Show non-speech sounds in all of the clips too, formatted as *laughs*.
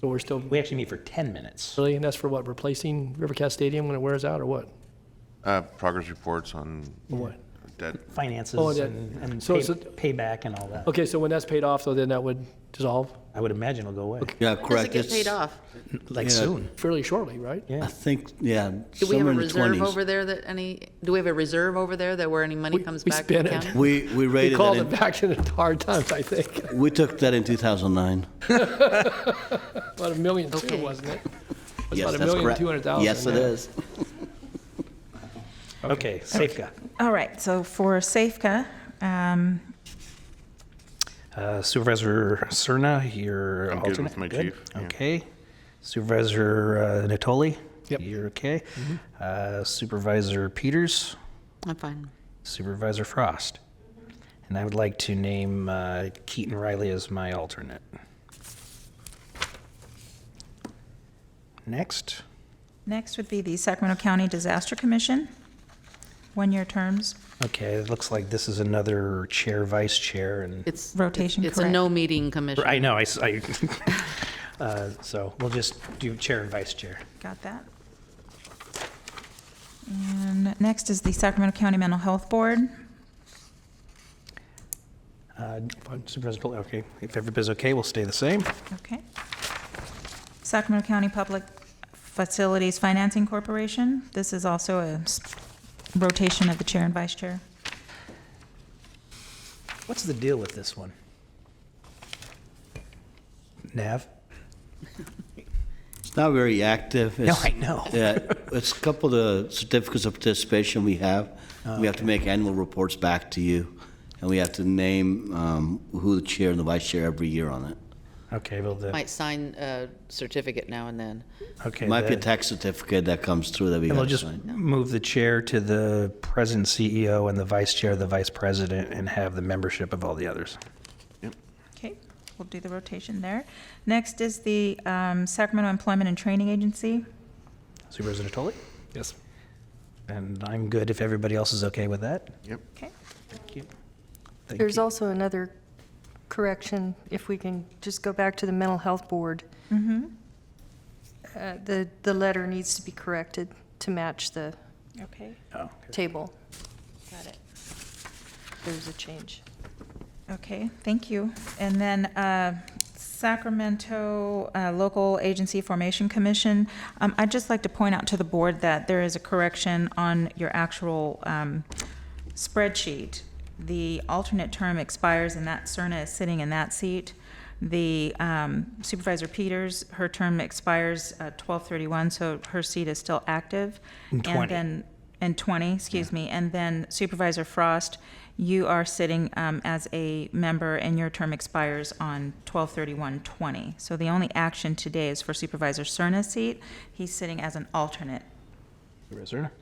So we're still, We actually meet for 10 minutes. really, and that's for what, replacing Rivercast Stadium when it wears out, or what? Uh, progress reports on What? debt. Oh, Finances that- and and so pay- it's a- payback and all that. Okay, so when that's paid off, though, then that would dissolve I would imagine it'll go away, Yeah, Does it correct. get paid It's- off? yeah, like soon. fairly shortly, right? I think, yeah, Do we have somewhere a in the reserve over twenties. there that any, do we have a reserve over there that where any money We- comes we back to the spent it. county? We, *laughs* we We rated called it, it in- back *laughs* in hard times, I think. we took that in two thousand nine. About a million two, Okay. wasn't it? It's Yes, about a that's million correct. two hundred thousand. Yes, it yeah. is. Okay, Safeco. All right, so for Safeco, um, Uh, Supervisor Serna, you're I'm alternate. good with my chief, yeah. Okay. Supervisor uh, Natoli. Yep. Mm-hmm. You're okay. Uh, Supervisor Peters. I'm fine. Supervisor Frost. And I would like to name uh, Keaton Riley as my alternate. Next. next would be the Sacramento County Disaster Commission, one-year terms. Okay, it looks like this is another chair, vice chair, and It's. Rotation, It's a correct. no-meeting commission. I know, I, s- I- *laughs* uh, so we'll just do chair and vice chair. Got that? And next is the Sacramento County Mental Health Board. Uh, Supervisor Pil- okay, if everybody's okay, we'll stay the same. Okay. Sacramento County Public Facilities Financing Corporation. This is also a s- rotation of the chair and vice chair. What's the deal with this one? Nav? It's not very active. No, It's- I know. Yeah, it's a couple of the certificates of participation we have. We have to make annual reports back to you, and we have to name um, who the chair and the vice chair every year on it. Okay, well, the, Might sign a certificate now and then. okay. It Might be a the- tax certificate that comes through that we And we'll got just to sign. move the chair to the president CEO and the vice chair, the vice president, and have the membership of all the others. Okay, we'll do the rotation there. Next is the um, Sacramento Employment and Training Agency. Supervisor Natoli? Yes. And I'm good if everybody else is okay with that. Yep. Okay, Thank you. Thank There's you. also another correction, if we can just go back to the mental health board. Uh, The, the letter needs to be corrected to match the okay, Oh, okay. table. Got it. There's a change. okay, thank you. And then uh, Sacramento uh, Local Agency Formation Commission. Um, I'd just like to point out to the board that there is a correction on your actual um, spreadsheet. The alternate term expires and that Serna is sitting in that seat. The um, Supervisor Peters, her term expires uh, 12/31, so her seat is still active. And 20. And then, and 20, excuse me. And then Supervisor Frost, you are sitting um, as a member and your term expires on 12/31/20. So the only action today is for Supervisor Serna's seat. He's sitting as an alternate. Supervisor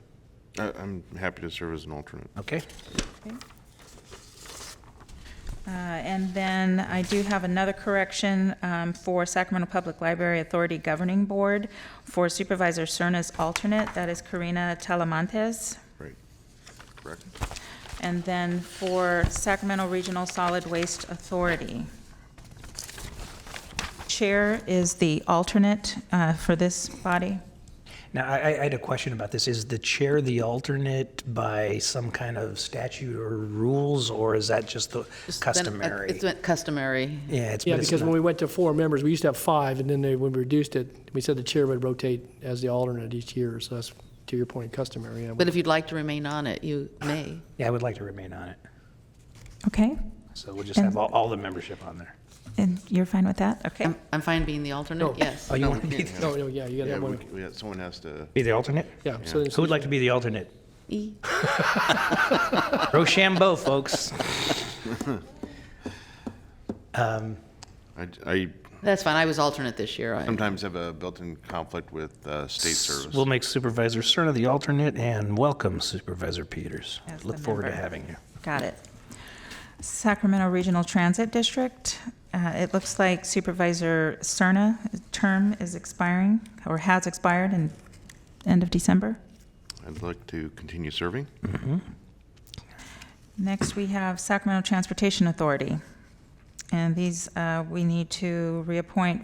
Serna? I, I'm happy to serve as an alternate. Okay. Uh, And then I do have another correction um, for Sacramento Public Library Authority Governing Board for Supervisor Cerna's alternate, that is Karina Talamantes. Right. Correct. And then for Sacramento Regional Solid Waste Authority. Chair is the alternate uh, for this body. Now, I, I- I had a question about this. Is the chair the alternate by some kind of statute or rules, or is that just the Just been- customary? uh, It's been customary. yeah, it's Yeah, but it's because when not- we went to four members, we used to have five, and then they, when we reduced it, we said the chair would rotate as the alternate each year, so that's, to your point, customary. yeah. But if you'd like to remain on it, you may. yeah, I would like to remain on it. Okay, So we'll just have all, all the membership on there. and you're fine with that? Okay. I'm, I'm fine being the alternate, yes. Oh, you want to be, the- No, no, yeah, you gotta Yeah, have we, one, we, got- someone has to. be the alternate? yeah. so then- Who would like to be the alternate? E. Rochambeau, folks. I, I That's fine, I was alternate this year. I- sometimes have a built-in conflict with uh, state service. We'll make Supervisor Serna the alternate and welcome Supervisor Peters. As the Look forward to member. having you. Got it. Sacramento Regional Transit District, uh, it looks like Supervisor Cerna term is expiring, or has expired in end of December. I'd like to continue serving. Next, we have Sacramento Transportation Authority. And these, uh, we need to reappoint